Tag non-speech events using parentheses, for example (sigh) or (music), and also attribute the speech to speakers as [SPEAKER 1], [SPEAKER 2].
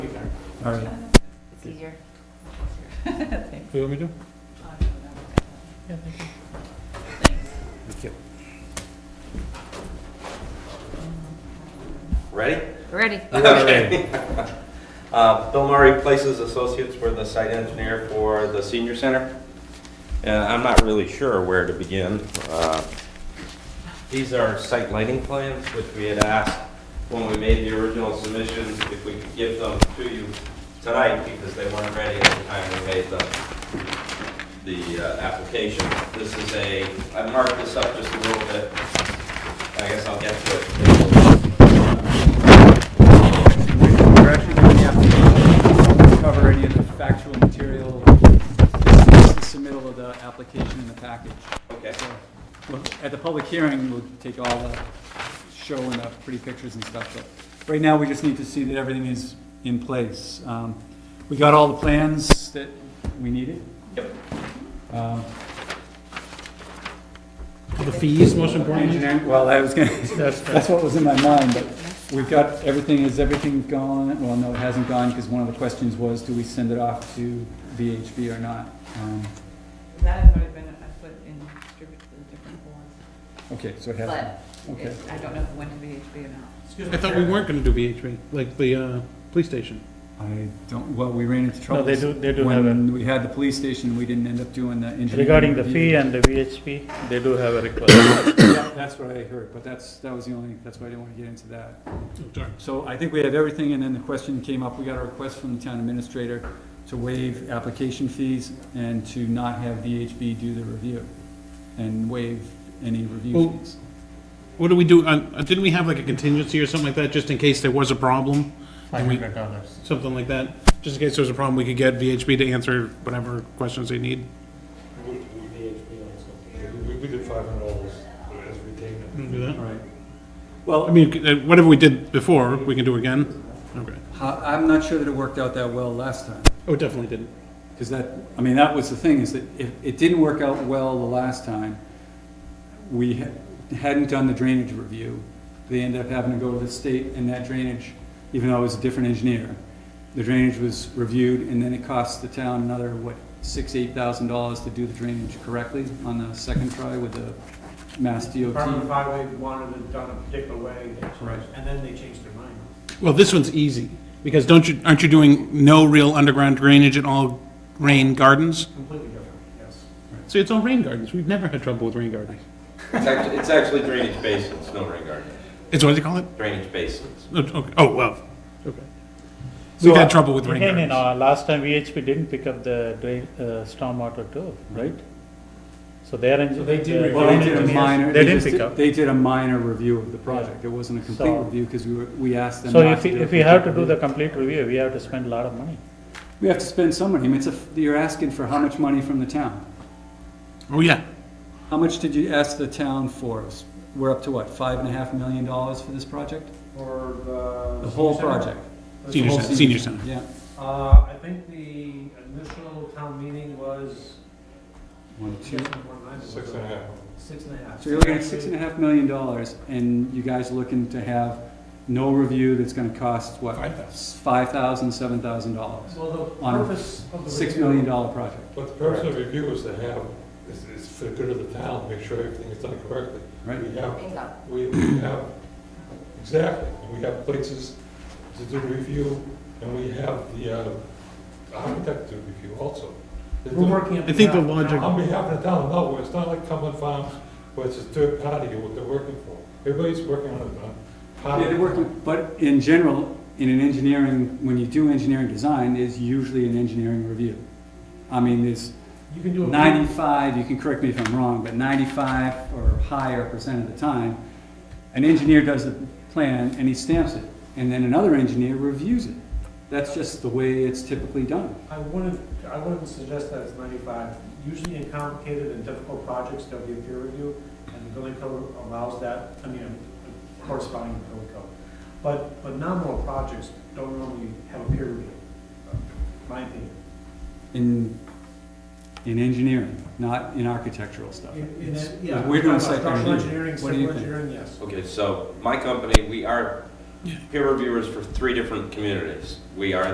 [SPEAKER 1] All right.
[SPEAKER 2] It's easier.
[SPEAKER 3] What do you want me to do?
[SPEAKER 1] Thank you.
[SPEAKER 4] Ready?
[SPEAKER 2] Ready?
[SPEAKER 4] Okay. (laughs) Uh, Bill Murray Places Associates were the site engineer for the senior center. And I'm not really sure where to begin. Uh, These are site lighting plans, which we had asked when we made the original submission if we could give them to you tonight because they weren't ready at the time we made the, the uh, application. This is a, I marked this up just a little bit. I guess I'll get to it.
[SPEAKER 1] We're actually doing the application, Don't cover any of the factual material, This is the submittal of the application in the package.
[SPEAKER 4] Okay.
[SPEAKER 1] So, well, At the public hearing, we'll take all the show and the pretty pictures and stuff, but right now, we just need to see that everything is in place. Um, We got all the plans that we needed.
[SPEAKER 4] Yep.
[SPEAKER 1] Um,
[SPEAKER 3] The fees, most importantly?
[SPEAKER 1] Engineering, well, I was gonna, (laughs)
[SPEAKER 3] That's
[SPEAKER 1] That's what was in my mind, but we've got, everything, is everything gone? Well, no, it hasn't gone, because one of the questions was, do we send it off to VHB or not? Um,
[SPEAKER 5] That has already been, I put in, distributed to the different boards,
[SPEAKER 1] Okay, so it hasn't.
[SPEAKER 2] But
[SPEAKER 1] Okay.
[SPEAKER 5] I don't know if it went to VHB or not.
[SPEAKER 3] I thought we weren't gonna do VHB, like the, uh, police station.
[SPEAKER 1] I don't, well, we ran into
[SPEAKER 6] No,
[SPEAKER 1] trouble.
[SPEAKER 6] they do, they do have a,
[SPEAKER 1] When we had the police station, we didn't end up doing the engineering.
[SPEAKER 6] regarding the
[SPEAKER 1] review.
[SPEAKER 6] fee and the VHP, they do have a (coughs) request.
[SPEAKER 1] Yeah, that's what I heard, but that's, that was the only, that's why I didn't want to get into that. So I think we have everything, and then the question came up, we got a request from the town administrator to waive application fees and to not have VHB do the review, and waive any review
[SPEAKER 3] Well-
[SPEAKER 1] fees.
[SPEAKER 3] What do we do, uh, uh, didn't we have like a contingency or something like that, just in case there was a problem?
[SPEAKER 6] Five hundred dollars.
[SPEAKER 3] Something like that, just in case there was a problem, we could get VHB to answer whatever questions they need.
[SPEAKER 7] We, we did, you know, so we, we did five hundred dollars as retainer.
[SPEAKER 3] Can we do that?
[SPEAKER 1] All right.
[SPEAKER 3] I mean, uh, whatever we did before, we can do again? Okay.
[SPEAKER 1] How- I'm not sure that it worked out that well last time,
[SPEAKER 3] Oh, it definitely didn't.
[SPEAKER 1] because that, I mean, that was the thing, is that if it didn't work out well the last time, we ha- hadn't done the drainage review. They ended up having to go to the state, and that drainage, even though it was a different engineer, the drainage was reviewed, and then it cost the town another, what, six, eight thousand dollars to do the drainage correctly on the second try with the Mass
[SPEAKER 8] Department of
[SPEAKER 1] DOT.
[SPEAKER 8] Highway wanted it done a particular way,
[SPEAKER 1] Right.
[SPEAKER 8] and then they changed their mind.
[SPEAKER 3] Well, this one's easy, because don't you, aren't you doing no real underground drainage at all rain gardens?
[SPEAKER 8] Completely different, yes.
[SPEAKER 3] See, it's all rain gardens, we've never had trouble with rain gardens.
[SPEAKER 4] It's actually, it's actually drainage basins, no rain garden,
[SPEAKER 3] It's what do you call it?
[SPEAKER 4] drainage basins.
[SPEAKER 3] Oh, okay. Oh, well, okay. We've had trouble with rain
[SPEAKER 6] Again, you
[SPEAKER 3] gardens.
[SPEAKER 6] know, last time VHP didn't pick up the drain, uh, stormwater too, right? So their engineer.
[SPEAKER 8] they did
[SPEAKER 1] Well, they did a minor, they
[SPEAKER 6] didn't
[SPEAKER 1] just,
[SPEAKER 6] pick
[SPEAKER 1] did-
[SPEAKER 6] up.
[SPEAKER 1] they did a minor review of the project, it wasn't a complete
[SPEAKER 6] So-
[SPEAKER 1] review, because we were, we asked them
[SPEAKER 6] So
[SPEAKER 1] not
[SPEAKER 6] if,
[SPEAKER 1] to do
[SPEAKER 6] we-
[SPEAKER 1] a
[SPEAKER 6] if we have to
[SPEAKER 1] complete
[SPEAKER 6] do the
[SPEAKER 1] review.
[SPEAKER 6] complete review, we have to spend a lot of money.
[SPEAKER 1] We have to spend some money, I mean, it's a, f- you're asking for how much money from the town?
[SPEAKER 3] Oh, yeah.
[SPEAKER 1] How much did you ask the town for? We're up to what, five and a half million dollars for this project?
[SPEAKER 8] Or the.
[SPEAKER 1] The whole project?
[SPEAKER 8] The
[SPEAKER 3] Senior
[SPEAKER 8] whole
[SPEAKER 3] center,
[SPEAKER 8] se-
[SPEAKER 3] senior center.
[SPEAKER 1] Yeah.
[SPEAKER 8] Uh, I think the initial town meeting was.
[SPEAKER 1] One, two.
[SPEAKER 7] Six and a half.
[SPEAKER 8] Six and a half.
[SPEAKER 1] So you're looking at six and a half million dollars, and you guys looking to have no review that's gonna cost, what?
[SPEAKER 3] Five thousand.
[SPEAKER 1] Five thousand, seven thousand dollars.
[SPEAKER 8] Well, the
[SPEAKER 1] on a
[SPEAKER 8] purpose of the.
[SPEAKER 1] Six
[SPEAKER 8] review-
[SPEAKER 1] million dollar project,
[SPEAKER 7] But the purpose of review is to have, is, is for the good of the town, make sure everything is done correctly.
[SPEAKER 1] right?
[SPEAKER 7] We have,
[SPEAKER 2] Bingo.
[SPEAKER 7] we, we have, exactly, we have places to do review, and we have the, uh, architect to review also. They're
[SPEAKER 8] We're
[SPEAKER 7] doing-
[SPEAKER 8] working. it
[SPEAKER 3] I think the
[SPEAKER 8] out now.
[SPEAKER 3] logic-
[SPEAKER 7] On behalf of the town, no, it's not like Cumberland Farms, where it's a third party, what they're working for. Everybody's working on a, on a.
[SPEAKER 1] Yeah, they work with- but in general, in an engineering, when you do engineering design, there's usually an engineering review. I mean, there's
[SPEAKER 8] You can do a.
[SPEAKER 1] 95, you can correct me if I'm wrong, but 95 or higher percent of the time, an engineer does the plan and he stamps it, and then another engineer reviews it. That's just the way it's typically done.
[SPEAKER 8] I wouldn't, I wouldn't suggest that it's ninety-five. Usually in complicated and difficult projects, there'll be a peer review, and the building code allows that, I mean, corresponding to the building code. But, but nominal projects don't normally have a peer review, my opinion.
[SPEAKER 1] In, in engineering, not in architectural stuff.
[SPEAKER 8] In- in that- yeah,
[SPEAKER 1] We're doing
[SPEAKER 8] I'm talking about
[SPEAKER 1] site plan review.
[SPEAKER 8] Structural engineering,
[SPEAKER 1] What do you
[SPEAKER 8] civil
[SPEAKER 1] think?
[SPEAKER 8] engineering, yes.
[SPEAKER 4] Okay, so my company, we are peer reviewers for three different communities. We are